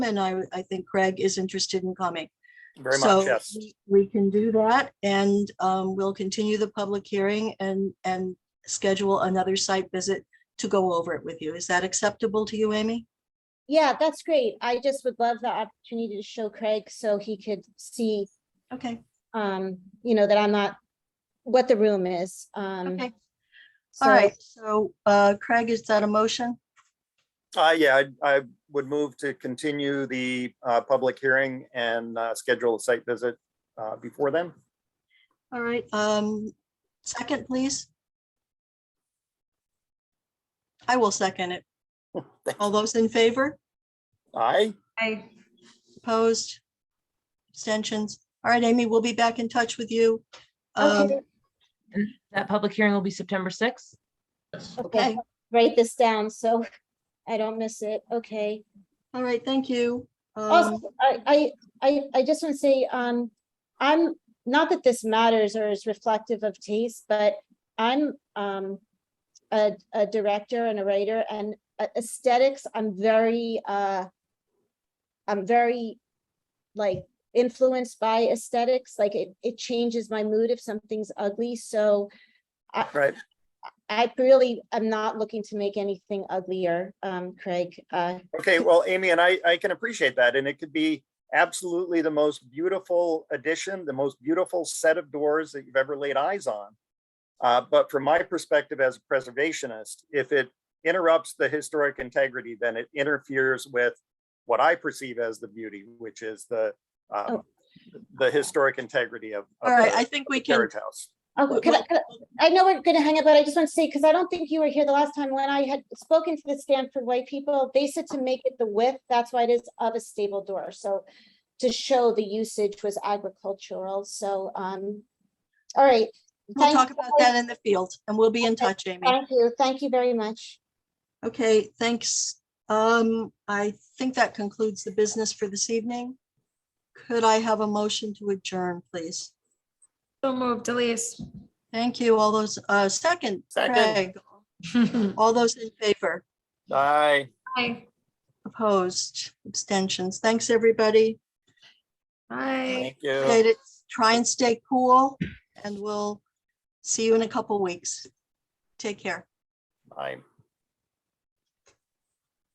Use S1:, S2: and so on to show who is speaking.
S1: and I, I think Craig is interested in coming.
S2: Very
S1: So
S2: much, yes.
S1: we- We can do that and um, we'll continue the public hearing and, and schedule another site visit to go over it with you. Is that acceptable to you, Amy?
S3: Yeah, that's great. I just would love the opportunity to show Craig so he could see,
S1: Okay,
S3: um, you know, that I'm not, what the room is. Um,
S1: okay.
S3: so-
S1: All right, so uh, Craig, is that a motion?
S2: Uh, yeah, I, I would move to continue the, uh, public hearing and, uh, schedule a site visit, uh, before then.
S1: All right, um, second, please. I will second it. All those in favor?
S2: Aye,
S4: Aye.
S1: Opposed? Abstentions? All right, Amy, we'll be back in touch with you. Um,
S3: Okay,
S5: That public hearing will be September sixth.
S3: okay,
S1: Okay,
S3: write this down so I don't miss it. Okay.
S1: all right, thank you. Um,
S3: Also, I, I, I, I just want to say, um, I'm, not that this matters or is reflective of taste, but I'm, um, a, a director and a writer and a- aesthetics, I'm very, uh, I'm very, like, influenced by aesthetics, like it, it changes my mood if something's ugly, so
S2: right.
S3: I really am not looking to make anything uglier, um, Craig, uh,
S2: Okay, well, Amy, and I, I can appreciate that, and it could be absolutely the most beautiful addition, the most beautiful set of doors that you've ever laid eyes on. Uh, but from my perspective as a preservationist, if it interrupts the historic integrity, then it interferes with what I perceive as the beauty, which is the, um,
S3: Oh.
S2: the historic integrity of. of
S1: All right,
S2: the
S1: I think we can,
S2: Carriage House.
S3: Oh,
S1: What-
S3: could I,
S1: what-
S3: could I I know we're gonna hang up, but I just want to say, because I don't think you were here the last time when I had spoken to the Stanford White people, they said to make it the width, that's why it is of a stable door, so to show the usage was agricultural, so, um, all right.
S1: we'll
S3: Thank-
S1: talk about that in the field and we'll be in touch, Amy.
S3: Thank you, thank you very much.
S1: Okay, thanks. Um, I think that concludes the business for this evening. Could I have a motion to adjourn, please?
S4: So moved, Elise.
S1: Thank you. All those, uh, second,
S2: Second.
S1: Craig, all those in favor,
S2: Aye.
S4: Aye.
S1: opposed, abstentions. Thanks, everybody.
S4: Aye.
S2: Thank you.
S1: Appreciate it. Try and stay cool and we'll see you in a couple weeks. Take care.
S2: Aye.